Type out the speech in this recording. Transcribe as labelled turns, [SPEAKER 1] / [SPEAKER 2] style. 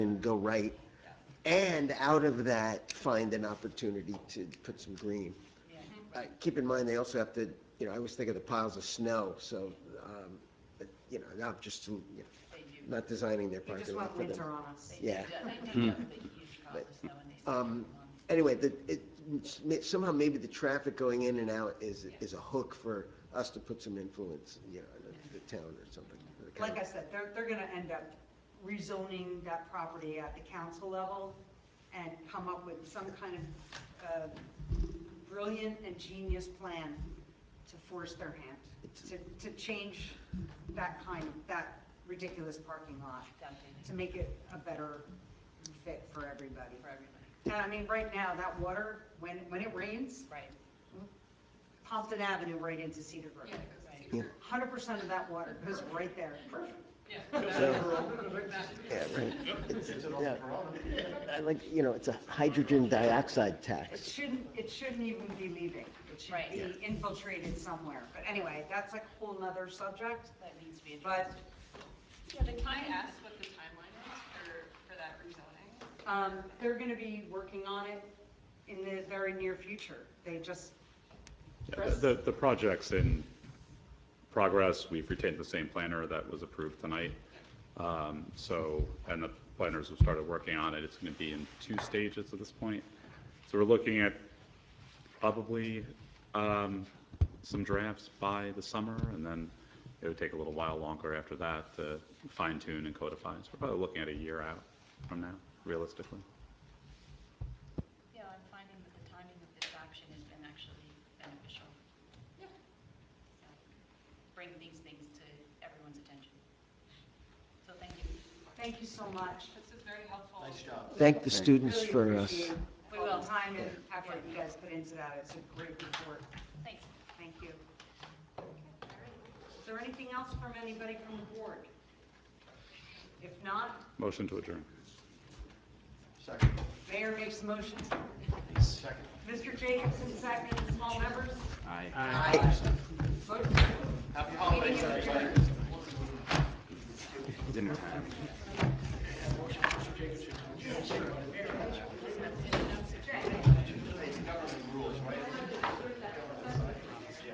[SPEAKER 1] and go right. And out of that, find an opportunity to put some green. Uh, Keep in mind, they also have to, you know, I always think of the piles of snow, so, um, but, you know, not just, you know,
[SPEAKER 2] They do.
[SPEAKER 1] not designing their
[SPEAKER 3] They
[SPEAKER 1] parking
[SPEAKER 3] just
[SPEAKER 1] lot
[SPEAKER 3] want
[SPEAKER 1] for
[SPEAKER 3] winter
[SPEAKER 1] them.
[SPEAKER 3] on us.
[SPEAKER 2] They do
[SPEAKER 1] Yeah.
[SPEAKER 2] that. They do that, but you should call us though, and they
[SPEAKER 1] Hmm. Um,
[SPEAKER 2] say, "Come on."
[SPEAKER 1] Anyway, the, it, it's- somehow maybe the traffic going in and out is, is a hook for us to put some influence, you know, in the- the town or something. the
[SPEAKER 3] Like I
[SPEAKER 1] county.
[SPEAKER 3] said, they're, they're gonna end up rezoning that property at the council level and come up with some kind of uh, brilliant and genius plan to force their hand, to, to change that kind, of that ridiculous parking lot, to
[SPEAKER 2] Something
[SPEAKER 3] make it a better fit for everybody.
[SPEAKER 2] for everybody,
[SPEAKER 3] And I mean, right now, that water, when, when it rains,
[SPEAKER 2] right?
[SPEAKER 3] Pompton Avenue right into Cedar Brook.
[SPEAKER 2] Yeah, right.
[SPEAKER 1] Yeah.
[SPEAKER 3] Hundred percent of that water goes right there.
[SPEAKER 1] Yeah, right. It's- yeah. I like, you know, it's a hydrogen dioxide
[SPEAKER 3] It
[SPEAKER 1] tax.
[SPEAKER 3] shouldn't, it shouldn't even be leaving. It
[SPEAKER 2] Right.
[SPEAKER 3] should be infiltrated somewhere. But anyway, that's a whole nother subject,
[SPEAKER 2] That needs to be
[SPEAKER 3] but,
[SPEAKER 2] addressed.
[SPEAKER 4] Yeah, the I ask what the timeline is for, for that rezoning?
[SPEAKER 3] um, they're gonna be working on it in the very near future. They just,
[SPEAKER 5] Yeah, the- The, the project's in progress. We've retained the same planner that was approved tonight. Um, So, and the planners have started working on it. It's going to be in two stages at this point. So we're looking at probably um, some drafts by the summer, and then it would take a little while longer after that to fine tune and codify. So we're probably looking at a year out from now, realistically.
[SPEAKER 2] Yeah, I'm finding that the timing of this action has been actually beneficial. Yeah. Bring these things to everyone's attention. So thank you.
[SPEAKER 3] thank you so much.
[SPEAKER 4] This is very helpful.
[SPEAKER 6] Nice job.
[SPEAKER 1] Thank the students
[SPEAKER 3] Really
[SPEAKER 1] for us.
[SPEAKER 3] appreciate
[SPEAKER 2] We
[SPEAKER 3] all
[SPEAKER 2] will.
[SPEAKER 3] the time and effort you guys put into that. It's a great report.
[SPEAKER 2] Thanks.
[SPEAKER 3] Thank you. Is there anything else from anybody from the board? If not,
[SPEAKER 5] Motion to adjourn.
[SPEAKER 6] Second,
[SPEAKER 3] mayor makes a motion.
[SPEAKER 6] second.
[SPEAKER 3] Mr. Jacobson, second, small members? Aye.
[SPEAKER 6] Happy holidays, everybody.
[SPEAKER 5] Dinner time.